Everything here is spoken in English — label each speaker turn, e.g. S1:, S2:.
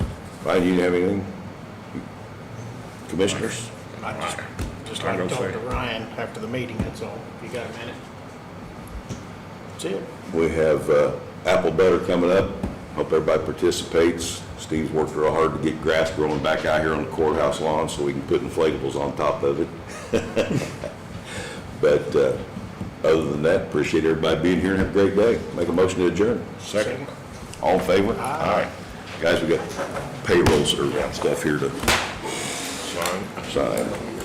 S1: Ryan, you have anything? Commissioners?
S2: I just, just
S3: I
S2: like to
S3: don't
S2: talk
S3: say.
S2: to Ryan after the meeting, that's all. You got a minute? That's it.
S1: We have uh, apple butter coming up. Hope everybody participates. Steve's worked real hard to get grass growing back out here on the courthouse lawn so we can put inflatables on top of it. But uh, other than that, appreciate everybody being here and have a great day. Make a motion to adjourn.
S3: Second.
S1: All in favor?
S2: Aye.
S1: Guys, we got payrolls or stuff here to
S3: Sign.
S1: sign.